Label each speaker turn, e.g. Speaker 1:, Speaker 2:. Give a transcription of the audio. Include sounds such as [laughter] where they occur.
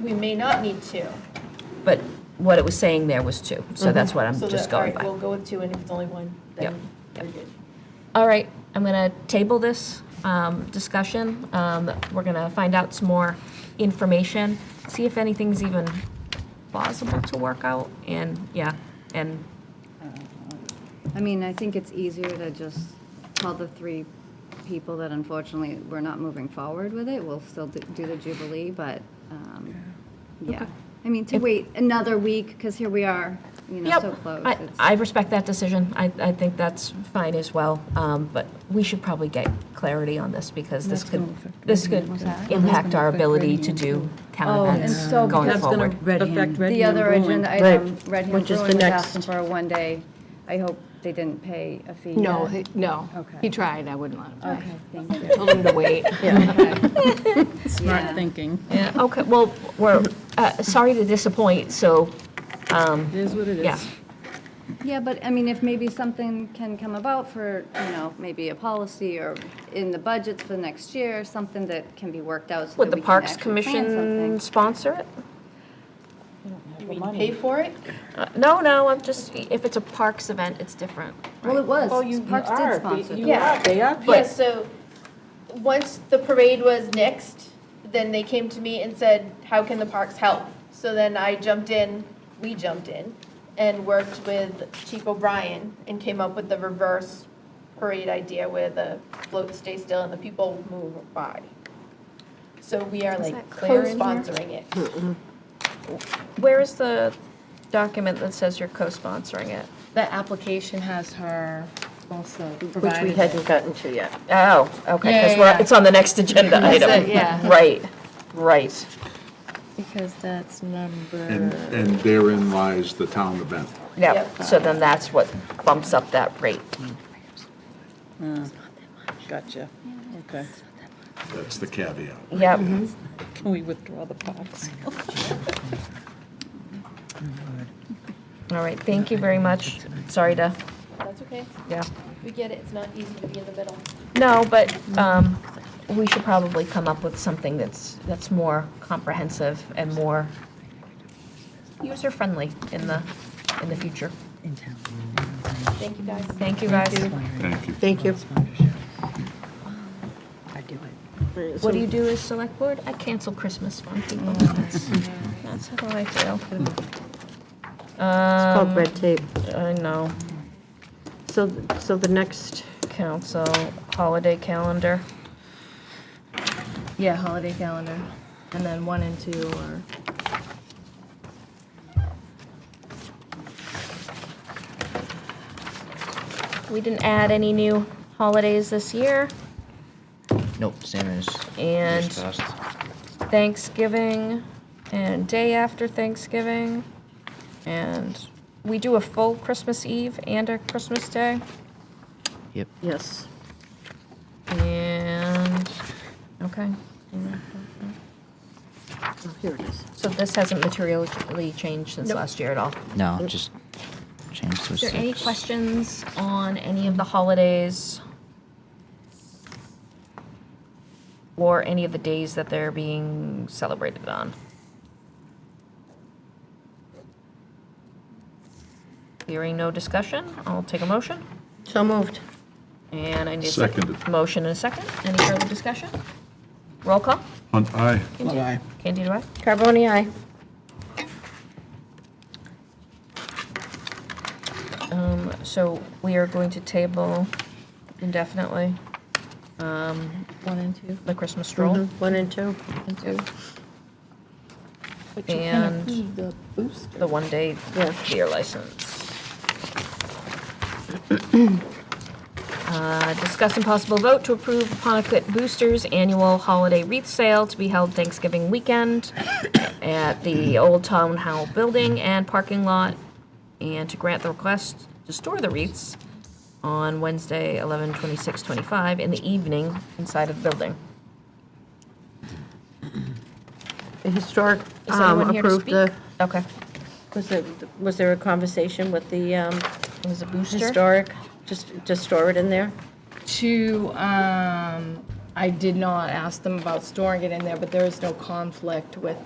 Speaker 1: we may not need two.
Speaker 2: But what it was saying there was two, so that's what I'm
Speaker 1: So
Speaker 2: just
Speaker 1: that, all
Speaker 2: going
Speaker 1: right,
Speaker 2: by.
Speaker 1: we'll go with two, and if it's only one,
Speaker 2: Yep,
Speaker 1: then we're
Speaker 2: yep.
Speaker 1: good.
Speaker 2: All right, I'm going to table this um, discussion. Um, We're going to find out some more information, see if anything's even plausible to work out, and, yeah, and,
Speaker 3: I mean, I think it's easier to just tell the three people that unfortunately we're not moving forward with it. We'll still do do the Jubilee, but, um, yeah. I mean, to wait another week, because here we are, you know,
Speaker 2: yep.
Speaker 3: so close.
Speaker 2: I-
Speaker 3: It's-
Speaker 2: I respect that decision. I, I think that's fine as well, Um, but we should probably get clarity on this, because this
Speaker 4: That's
Speaker 2: could,
Speaker 4: gonna affect
Speaker 2: this
Speaker 4: Red
Speaker 2: could
Speaker 4: Hand, what's that?
Speaker 2: impact our
Speaker 4: That's gonna
Speaker 2: ability
Speaker 4: affect
Speaker 2: to
Speaker 4: Red
Speaker 2: do
Speaker 4: Hand,
Speaker 2: town events
Speaker 3: and so-
Speaker 2: going
Speaker 4: That's gonna
Speaker 2: forward.
Speaker 4: affect Red
Speaker 3: The
Speaker 4: Hand
Speaker 3: other
Speaker 4: Brewing.
Speaker 3: agenda
Speaker 5: Right,
Speaker 3: item, Red Hand
Speaker 5: which is the
Speaker 3: Brewing was
Speaker 5: next.
Speaker 3: asking for a one-day. I hope they didn't pay a fee.
Speaker 6: No,
Speaker 3: yet.
Speaker 6: he- no.
Speaker 3: Okay.
Speaker 6: He tried, I wouldn't let him try.
Speaker 3: Okay, thank you.
Speaker 6: Told him to wait.
Speaker 3: Yeah.
Speaker 4: Smart thinking.
Speaker 2: Yeah, okay, well, we're, uh, sorry to disappoint, so,
Speaker 4: It is what it is.
Speaker 2: yeah.
Speaker 3: Yeah, but I mean, if maybe something can come about for, you know, maybe a policy or in the budgets for next year, something that can be worked out so
Speaker 2: Would
Speaker 3: that
Speaker 2: the
Speaker 3: we can
Speaker 2: Parks
Speaker 3: actually plan something.
Speaker 2: Commission sponsor it?
Speaker 1: You mean pay for it?
Speaker 2: Uh, No, no, I'm just, if it's a Parks event, it's different.
Speaker 3: Well, it was.
Speaker 4: Oh, you you
Speaker 3: Parks
Speaker 4: are.
Speaker 3: did sponsor
Speaker 4: You
Speaker 3: that.
Speaker 1: Yeah.
Speaker 4: are. They are.
Speaker 1: Yeah, so, once the parade was nixed, then they came to me and said, how can the parks help? So then I jumped in, we jumped in, and worked with Chief O'Brien and came up with the reverse parade idea where the floats stay still and the people move by. So we are like
Speaker 2: that clear in here?
Speaker 1: co-sponsoring it.
Speaker 2: Where is the document that says you're co-sponsoring it?
Speaker 7: The application has her also
Speaker 5: Which we
Speaker 7: provided.
Speaker 5: hadn't gotten to yet.
Speaker 2: Oh, okay,
Speaker 7: Yeah,
Speaker 2: because
Speaker 7: yeah,
Speaker 2: we're,
Speaker 7: yeah.
Speaker 2: it's on the next agenda item.
Speaker 7: it, yeah.
Speaker 2: Right, right.
Speaker 7: Because that's
Speaker 8: And,
Speaker 7: number,
Speaker 8: and therein lies the town event.
Speaker 2: Yeah,
Speaker 1: Yep.
Speaker 2: so then that's what bumps up that rate.
Speaker 4: Gotcha. Okay.
Speaker 8: That's the caveat.
Speaker 2: Yep,
Speaker 4: Can we withdraw the box?
Speaker 2: all right, thank you very much. Sorry to,
Speaker 1: That's okay.
Speaker 2: yeah.
Speaker 1: We get it. It's not easy to be in the middle.
Speaker 2: No, but um, we should probably come up with something that's, that's more comprehensive and more user-friendly in the, in the future.
Speaker 1: Thank you, guys.
Speaker 2: Thank you, guys.
Speaker 8: Thank you.
Speaker 5: Thank you.
Speaker 2: What do you do as select board? I cancel Christmas on people. That's that's how I feel.
Speaker 5: Mm.
Speaker 2: Um,
Speaker 5: It's called red tape.
Speaker 2: I know,
Speaker 5: So, so the next,
Speaker 2: council, holiday calendar.
Speaker 7: yeah, holiday calendar. And then one and two are,
Speaker 2: We didn't add any new holidays this year.
Speaker 9: Nope, same as.
Speaker 2: And-
Speaker 9: years past.
Speaker 2: Thanksgiving and day after Thanksgiving. And we do a full Christmas Eve and a Christmas Day.
Speaker 9: Yep.
Speaker 5: yes.
Speaker 2: And, okay.
Speaker 5: Oh, here it is.
Speaker 2: So this hasn't materially changed since last year at all.
Speaker 9: No, just change to a
Speaker 2: Is there any
Speaker 9: six.
Speaker 2: questions on any of the holidays? Or any of the days that they're being celebrated on? Hearing no discussion, I'll take a motion.
Speaker 5: So moved.
Speaker 2: And I need a second.
Speaker 8: Seconded.
Speaker 2: Motion and a second. Any further discussion? Roll call.
Speaker 8: Hunt aye.
Speaker 2: Candida, aye?
Speaker 5: Carboni, aye.
Speaker 2: Um, so we are going to table indefinitely, um,
Speaker 7: one and two. Mm-hmm.
Speaker 2: the Christmas stroll.
Speaker 5: Mm-hmm. One and two.
Speaker 7: And two.
Speaker 4: But you can
Speaker 2: And-
Speaker 4: approve the booster.
Speaker 2: the one-day
Speaker 5: Yeah.
Speaker 2: beer license. [clears throat] Uh, Discuss and possible vote to approve Pontiac Boosters Annual Holiday Wreath Sale to be held Thanksgiving
Speaker 5: [coughs]
Speaker 2: weekend at the Old Town Hall Building and parking lot, and to grant the request to store the wreaths on Wednesday, 11/26/25, in the evening inside of the building.
Speaker 5: The historic
Speaker 2: Is anyone
Speaker 5: um,
Speaker 2: here to
Speaker 5: approved
Speaker 2: speak?
Speaker 5: the,
Speaker 2: Okay.
Speaker 5: was there, was there a conversation with the um,
Speaker 2: It was a booster.
Speaker 5: historic, just to store it in there?
Speaker 7: Two, um, I did not ask them about storing it in there, but there is no conflict with